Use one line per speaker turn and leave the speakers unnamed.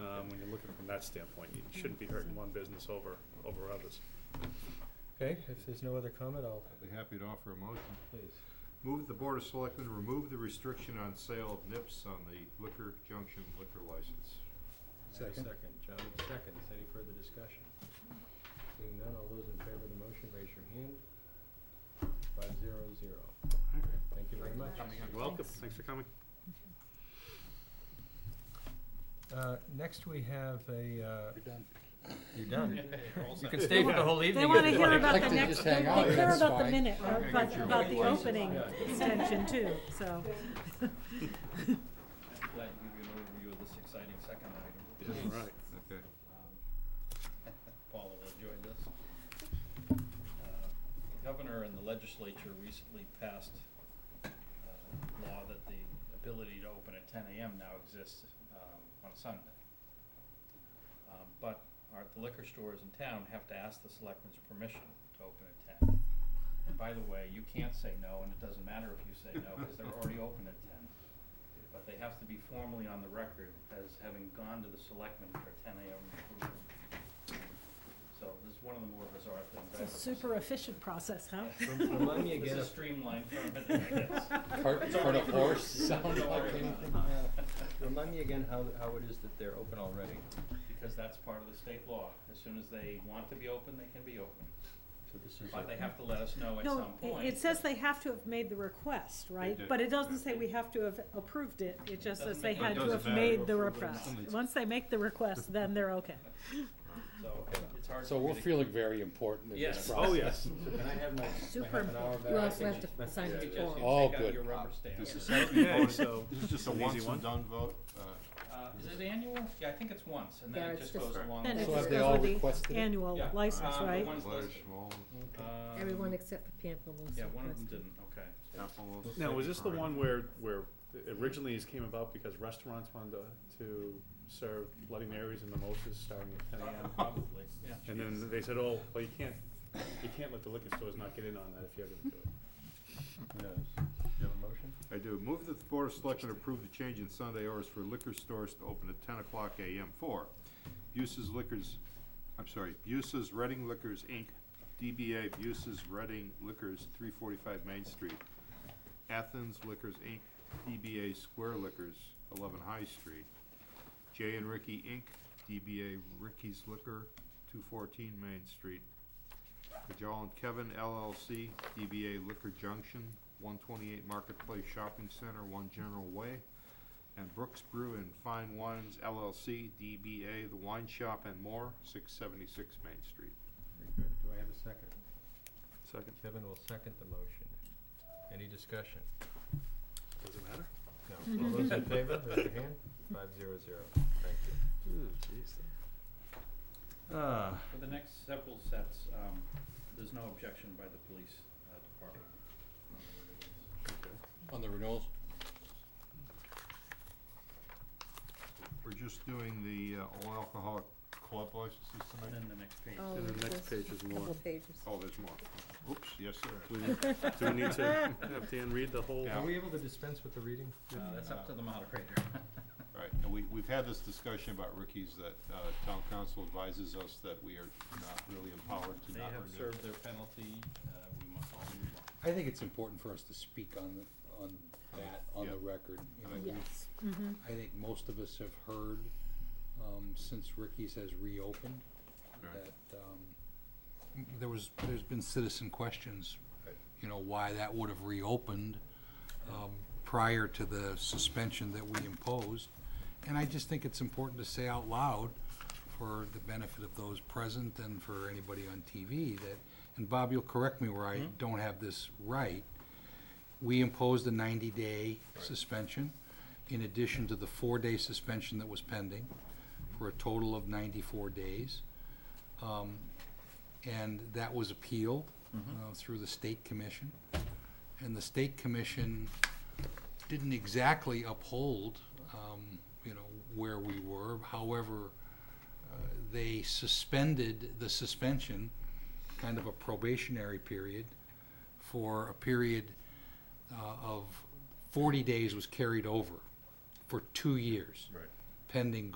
Um, looking from that standpoint, you shouldn't be hurting one business over, over others.
Okay, if there's no other comment, I'll,
I'd be happy to offer a motion.
please.
Move that the Board of Selectmen remove the restriction on sale of nips on the Liquor Junction liquor license.
I have a
Second.
Second, John seconds. Any further discussion? Seeing none, all those in favor of the motion, raise your hand. Five zero zero. Thank you very much.
Coming up.
Welcome, thanks for coming.
Uh, next we have a, uh,
You're done.
you're done. You can
set.
stay for the
Yeah.
whole evening.
They
if
want to
you
hear
like.
about the
Like to
next,
just
they
hang out,
they care
that's
about the
fine.
minute, or
Okay,
about,
get your
about the
license.
opening
Yeah.
extension too, so.
Glad to give you an overview of this exciting second item.
Yeah, right.
Okay.
Um, Paula will enjoy this. Uh, The governor and the legislature recently passed uh, law that the ability to open at ten AM now exists um, on Sunday. Um, But our, the liquor stores in town have to ask the selectmen's permission to open at ten. And by the way, you can't say no, and it doesn't matter if you say no, because they're already open at ten. But they have to be formally on the record as having gone to the selectmen for ten AM approval. So this is one of the more bizarre things I've ever
It's a
seen.
super efficient process, huh?
Rem- Remind me
This
again,
is
of-
streamlined from it, I guess.
Cart
It's
in front
already
of
approved.
horse, sound
Don't
like
worry about
anything.
it.
remind me again how, how it is that they're open already.
Because that's part of the state law. As soon as they want to be open, they can be open.
So this is
But they
a-
have to let us know at
No,
some
it-
point.
it says they have to have made the request, right?
did.
But it doesn't say we have to have approved it, it just
Doesn't
says they
make-
had to
Doesn't
have
matter.
made the
Approved or
request.
not.
Once they make the request, then they're okay.
So it's hard.
So
for me
we're
to-
feeling very important in this
Yes.
process.
Oh, yes.
So can I have my, my
Super
half an hour back?
You also have to sign
You
the
just- you
form.
take
Oh,
out
good.
your rubber stamp.
This is
Okay, so,
This is just a
An easy
once
one.
and done vote. Uh,
Uh, is it annual? Yeah, I think it's once, and
Yeah,
then it
it's
just
just-
goes along.
Then
the
it
So
way.
have
just
they
goes
all
with the
requested it?
Annual
Yeah.
license,
Um,
right?
one- One's
Large,
listed.
small,
Um,
Everyone except for Pamperos.
Yeah, one of them didn't, okay.
apple.
now, was this the one where, where originally this came about because restaurants wanted to- to serve Bloody Marys and mimosas starting at ten AM?
Probably, yeah.
And then they said, oh, well, you can't, you can't let the liquor stores not get in on that if you're gonna do it.
Yes. Do you have a motion?
I do. Move that the Board of Selectmen approve the change in Sunday hours for liquor stores to open at ten o'clock AM for Buses Liquors, I'm sorry, Buses Reading Liquors, Inc., DBA Buses Reading Liquors, three forty-five Main Street, Athens Liquors, Inc., DBA Square Liquors, eleven High Street, J and Ricky, Inc., DBA Ricky's Liquor, two fourteen Main Street, Kajal and Kevin LLC, DBA Liquor Junction, one twenty-eight Marketplace Shopping Center, One General Way, and Brooks Brew and Fine Wines LLC, DBA The Wine Shop and More, six seventy-six Main Street.
Very good. Do I have a second?
Second,
Kevin will second the motion. Any discussion?
does it matter?
No. All those in favor, raise your hand. Five zero zero. Thank you. Ah,
For the next several sets, um, there's no objection by the police uh, department.
On the renewals?
We're just doing the uh, all alcoholic club licenses
And
tonight?
then the next page.
Oh,
And the
there's
next page is more.
Couple pages.
Oh, there's more. Oops, yes,
Do
there
we
is.
need- do we need to have Dan read the whole?
Yeah.
are we able to dispense with the reading?
Uh, That's up to the moderator.
Right, and we, we've had this discussion about Ricky's that, uh, town council advises us that we are not really empowered to
They
not
have
renew.
served their penalty, uh, we must all move on.
I think it's important for us to speak on, the- on that, on the
Yeah.
record. You know,
I
we've- I think most of us have heard, um, since Ricky's has reopened,
Right.
that, um, m- there was, there's been citizen questions,
Right.
you know, why that would have reopened, um, prior to the suspension that we imposed. And I just think it's important to say out loud for the benefit of those present and for anybody on TV that, and Bob, you'll correct me where I don't have this right, we imposed a 90-day suspension in addition to the four-day suspension that was pending for a total of 94 days. Um, And that was appealed uh, through the state commission. And the state commission didn't exactly uphold, um, you know, where we were. However, uh, they suspended the suspension, kind of a probationary period, for a period uh, of 40 days was carried over for two years. Pending